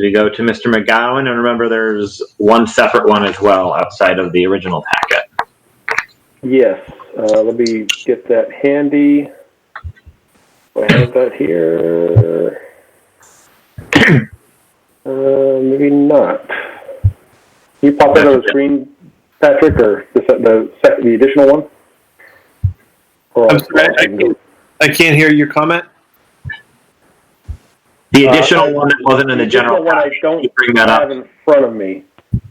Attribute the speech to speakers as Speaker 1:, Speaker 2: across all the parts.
Speaker 1: You go to Mr. McGowan, and remember there's one separate one as well outside of the original packet.
Speaker 2: Yes, uh, let me get that handy. Do I have that here. Uh, maybe not. Can you pop that on the screen, Patrick, or the, se- the, se- the additional one? Or-
Speaker 3: I'm sorry, I can't, I can't hear your comment.
Speaker 1: The
Speaker 2: Uh,
Speaker 1: additional
Speaker 2: I-
Speaker 1: one that wasn't in the general
Speaker 2: one I
Speaker 1: packet,
Speaker 2: don't
Speaker 1: you bring that up.
Speaker 2: have in front of me.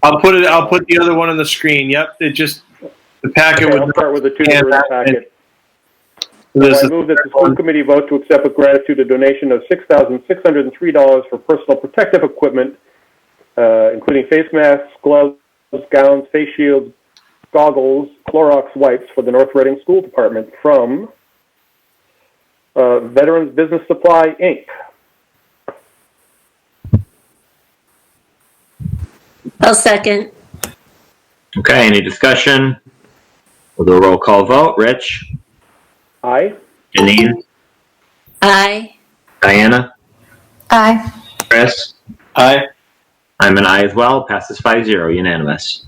Speaker 3: I'll put it. I'll put the other one on the screen. Yep. It just the packet
Speaker 2: Okay, I'll
Speaker 3: with
Speaker 2: start with the two
Speaker 3: Yeah,
Speaker 2: that are in the
Speaker 3: that-
Speaker 2: packet.
Speaker 3: this.
Speaker 2: I move that the school committee vote to accept with gratitude a donation of six thousand six hundred and three dollars for personal protective equipment, uh, including face masks, gloves, gowns, face shields, goggles, Clorox wipes for the North Reading School Department from uh, Veterans Business Supply Inc.
Speaker 4: I'll second.
Speaker 1: Okay, any discussion? We'll do a roll call vote. Rich,
Speaker 2: Aye.
Speaker 1: Janine,
Speaker 4: Aye.
Speaker 1: Diana,
Speaker 4: Aye.
Speaker 1: Chris.
Speaker 3: Aye.
Speaker 1: I'm an I as well. Passes 5 0, unanimous.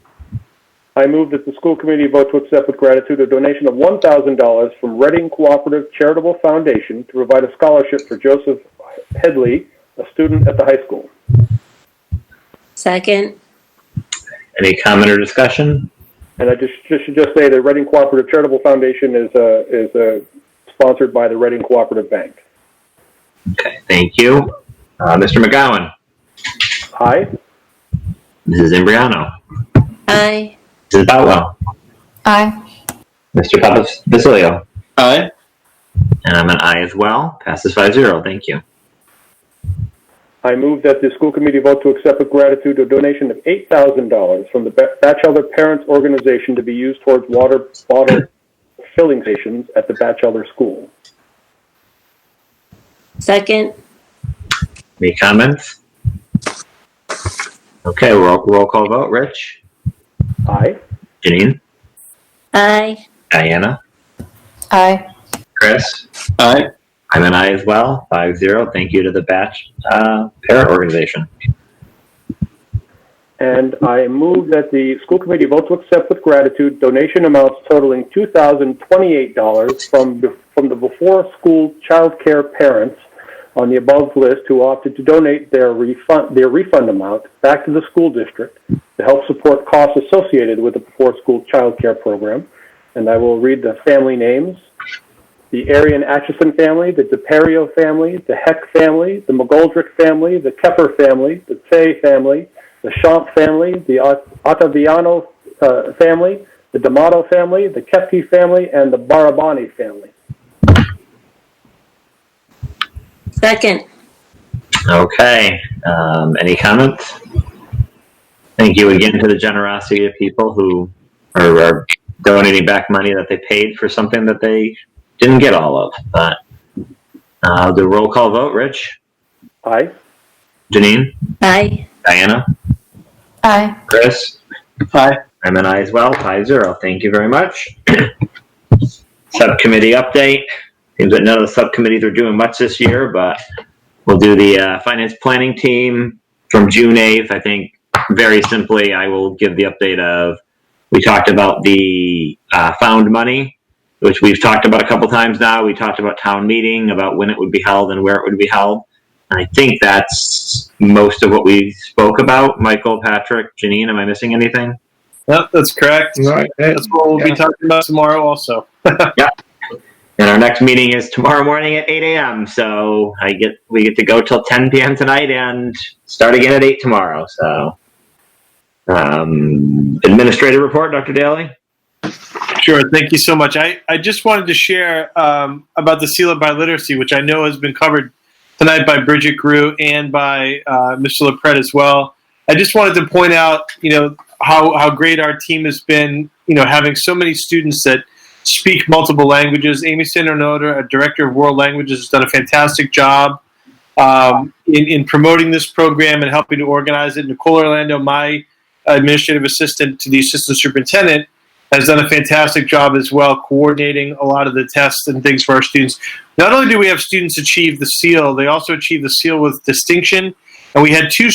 Speaker 2: I move that the school committee vote to accept with gratitude a donation of one thousand dollars from Reading Cooperative Charitable Foundation to provide a scholarship for Joseph Headley, a student at the high school.
Speaker 4: Second.
Speaker 1: Any comment or discussion?
Speaker 2: And I just, just should just say that Reading Cooperative Charitable Foundation is uh, is uh, sponsored by the Reading Cooperative Bank.
Speaker 1: Okay, thank you. Uh, Mr. McGowan,
Speaker 2: Aye.
Speaker 1: Mrs. Imbriano,
Speaker 4: Aye.
Speaker 1: Mrs. Boutwell,
Speaker 4: Aye.
Speaker 1: Mr. Papa Basilio,
Speaker 3: Aye.
Speaker 1: and I'm an I as well. Passes 5 0, thank you.
Speaker 2: I move that the school committee vote to accept with gratitude a donation of eight thousand dollars from the Ba- Batchelder Parents Organization to be used towards water bottle filling stations at the Batchelder School.
Speaker 4: Second.
Speaker 1: Any comments? Okay, roll, roll call vote. Rich,
Speaker 2: Aye.
Speaker 1: Janine,
Speaker 4: Aye.
Speaker 1: Diana,
Speaker 4: Aye.
Speaker 1: Chris.
Speaker 3: Aye.
Speaker 1: I'm an I as well. 5 0. Thank you to the batch uh, parent organization.
Speaker 2: And I move that the school committee vote to accept with gratitude donation amounts totaling two thousand twenty-eight dollars from, the- from the before-school childcare parents on the above list who opted to donate their refund, their refund amount back to the school district to help support costs associated with the before-school childcare program. And I will read the family names. The Arian Atchison family, the DePerio family, the Heck family, the McGoldrick family, the Kepper family, the Fay family, the Champ family, the Ot- Ottaviano uh, family, the D'Amato family, the Kepke family, and the Barabani family.
Speaker 4: Second.
Speaker 1: Okay. Um, any comments? Thank you again to the generosity of people who are, are donating back money that they paid for something that they didn't get all of. But uh, the roll call vote. Rich,
Speaker 2: Aye.
Speaker 1: Janine,
Speaker 4: Aye.
Speaker 1: Diana,
Speaker 4: Aye.
Speaker 1: Chris.
Speaker 3: Aye.
Speaker 1: I'm an I as well, five zero. Thank you very much. Subcommittee update. Seems that none of the subcommittees are doing much this year, but we'll do the uh, finance planning team from June eighth. I think very simply, I will give the update of we talked about the uh, found money, which we've talked about a couple times now. We talked about town meeting about when it would be held and where it would be held. And I think that's most of what we spoke about. Michael, Patrick, Janine, am I missing anything?
Speaker 3: Yep, that's correct.
Speaker 5: Right.
Speaker 3: That's what we'll be
Speaker 5: Yeah.
Speaker 3: talking about tomorrow also.
Speaker 1: And our next meeting is tomorrow morning at 8 a.m. So I get we get to go till 10 p.m. tonight and start again at 8 tomorrow. So um, administrative report, Dr. Daly.
Speaker 3: Sure. Thank you so much. I, I just wanted to share um, about the seal of biliteracy, which I know has been covered tonight by Bridget Grew and by uh, Mr. LaPret as well. I just wanted to point out, you know, how, how great our team has been, you know, having so many students that speak multiple languages. Amy Sandernoda, a director of world languages, has done a fantastic job um, in, in promoting this program and helping to organize it. Nicole Orlando, my administrative assistant to the assistant superintendent, has done a fantastic job as well coordinating a lot of the tests and things for our students. Not only do we have students achieve the seal, they also achieve the seal with distinction. And we had two